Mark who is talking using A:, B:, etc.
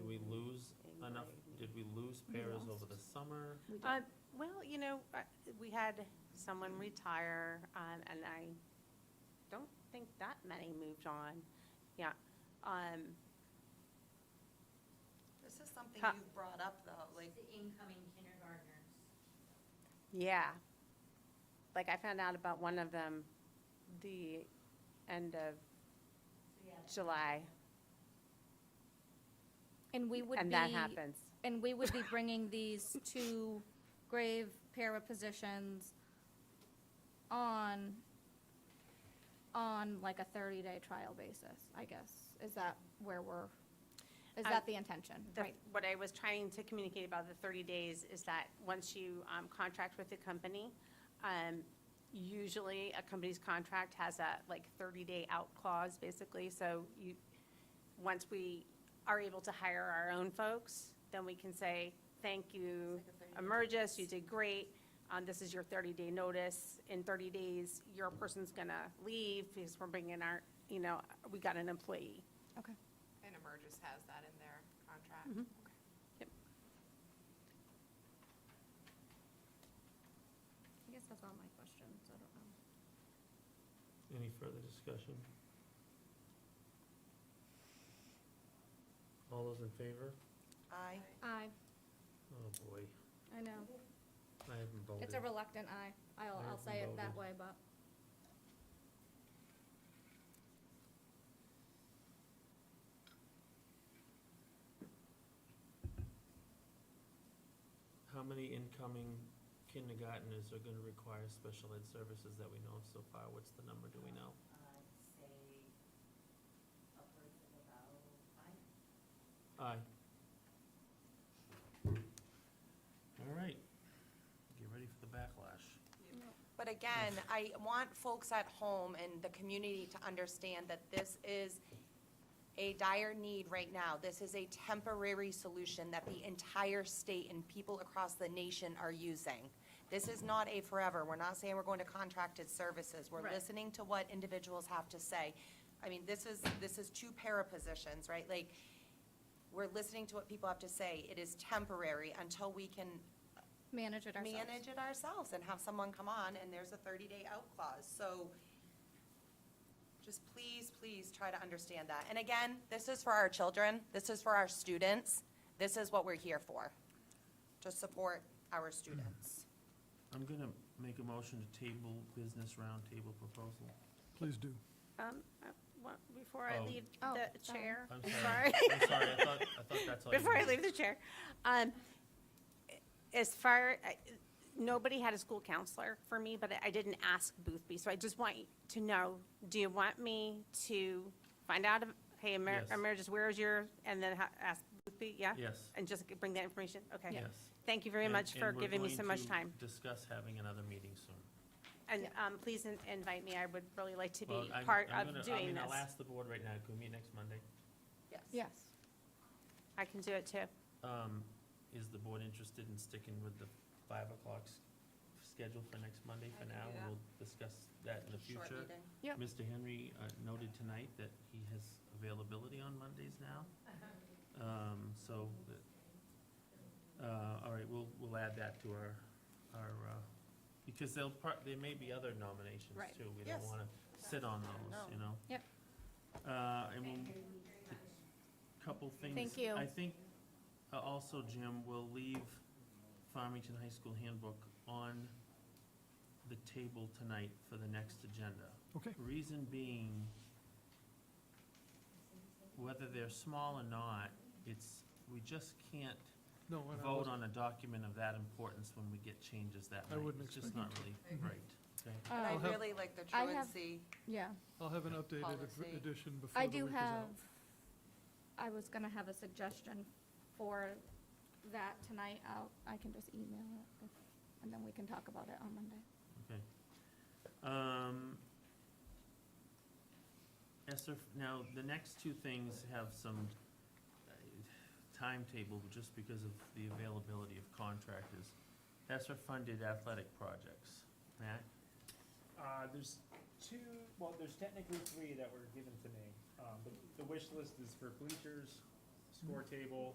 A: Bruce Bears over the summer?
B: Uh, Well, you know, I- we had someone retire, um, and I don't think that many moved on. Yeah. Um,
C: This is something
B: Huh.
C: you've brought up, though, like,
D: The incoming kindergartners.
B: Yeah. Like, I found out about one of them the end of
D: So, yeah, that's-
B: July,
E: And we would be.
B: and that happens.
E: And we would be bringing these two grave para positions on, on like a 30-day trial basis, I guess. Is that where we're, is
B: Uh,
E: that the intention?
B: The-
E: Right.
B: What I was trying to communicate about the 30 days is that once you um, contract with the company, um, usually a company's contract has a like 30-day out clause, basically. So you, once we are able to hire our own folks, then we can say, thank you,
C: It's like a 30
B: Emergis, you did great. Um, This is your 30-day notice. In 30 days, your person's going to leave because we're bringing our, you know, we got an employee.
E: Okay.
F: And Emergis has that in their contract. Okay.
E: I guess that's all my questions. I don't know.
A: Any further discussion? All those in favor?
C: I,
E: Aye,
A: Oh, boy,
E: I know.
A: I haven't voted.
E: It's a reluctant aye. I'll, I'll
A: There's
E: say it that
A: voted.
E: way, but
A: How many incoming kindergarteners are gonna require special ed services that we know of so far? What's the number, do we know?
D: I'd say upwards of about five.
A: Aye. All right. Get ready for the backlash.
C: but again, I want folks at home and the community to understand that this is a dire need right now. This is a temporary solution that the entire state and people across the nation are using. This is not a forever. We're not saying we're going to contracted services. We're
B: Right.
C: listening to what individuals have to say. I mean, this is, this is two para positions, right? Like, we're listening to what people have to say. It is temporary until we can
E: manage it ourselves.
C: manage it ourselves and have someone come on, and there's a 30-day out clause. So just please, please try to understand that. And again, this is for our children, this is for our students, this is what we're here for, to support our students.
A: I'm gonna make a motion to table business roundtable proposal.
G: Please do.
B: Um, I want- Before I
A: Oh.
B: leave
E: Oh,
B: the
E: sorry.
B: chair,
A: I'm
B: sorry,
A: sorry, I'm sorry, I thought, I thought that's all you
B: before I
A: had.
B: leave the chair, um, as far, I- nobody had a school counselor for me, but I didn't ask Boothby, so I just want you to know, do you want me to find out, if- hey, Emer-
A: Yes.
B: Emergis, where is your, and then ha- ask Boothby, yeah?
A: Yes,
B: And just bring that information? Okay.
A: yes.
B: Thank you very
A: And-
B: much
A: and
B: for
A: we're
B: giving me
A: going
B: so much
A: to
B: time.
A: Discuss having another meeting soon.
B: And um, please in- invite me, I would really like to
A: Well,
B: be
A: I'm-
B: part
A: I'm
B: of
A: gonna- I
B: doing
A: mean, I'll
B: this.
A: ask the board right now, can we meet next Monday?
C: Yes.
E: Yes.
B: I can do it too.
A: Um, is the board interested in sticking with the five o'clock s- schedule for next Monday
C: I
A: for
C: can
A: now?
C: do
A: and
C: that.
A: We'll discuss that in the
C: Short
A: future.
C: meeting.
E: Yep.
A: Mr. Henry uh, noted tonight that he has availability on Mondays now. Um, so, the- uh, all right, we'll, we'll add that to our, our, uh, because there'll part, there may be other nominations
E: Right.
A: too. We don't
C: Yes.
A: wanna sit on those, you know?
E: Yep.
A: Uh, and we'll couple things.
E: Thank you.
A: I think, uh, also, Jim, we'll leave Farmington High School handbook on the table tonight for the next agenda.
G: Okay.
A: Reason being, whether they're small or not, it's, we just can't
G: No, and I
A: vote on
G: wasn't-
A: a document of that importance when we get changes that
G: I
A: night.
G: wouldn't
A: It's just not
G: expect
A: really
C: Mhm.
A: right, okay?
C: And
E: Um,
C: I
G: have-
C: really like the
E: I have-
C: truancy.
E: Yeah.
G: I'll have an updated
C: Policy.
G: ed- edition before
E: I
G: the week
E: do
G: is out.
E: have, I was gonna have a suggestion for that tonight. I'll, I can just email it, if- and then we can talk about it on Monday.
A: Um, Esther, now, the next two things have some uh, timetable, just because of the availability of contractors. Esther funded athletic projects. Matt?
H: Uh, there's two, well, there's technically three that were given to me. Um, but the wish list is for bleachers, score table,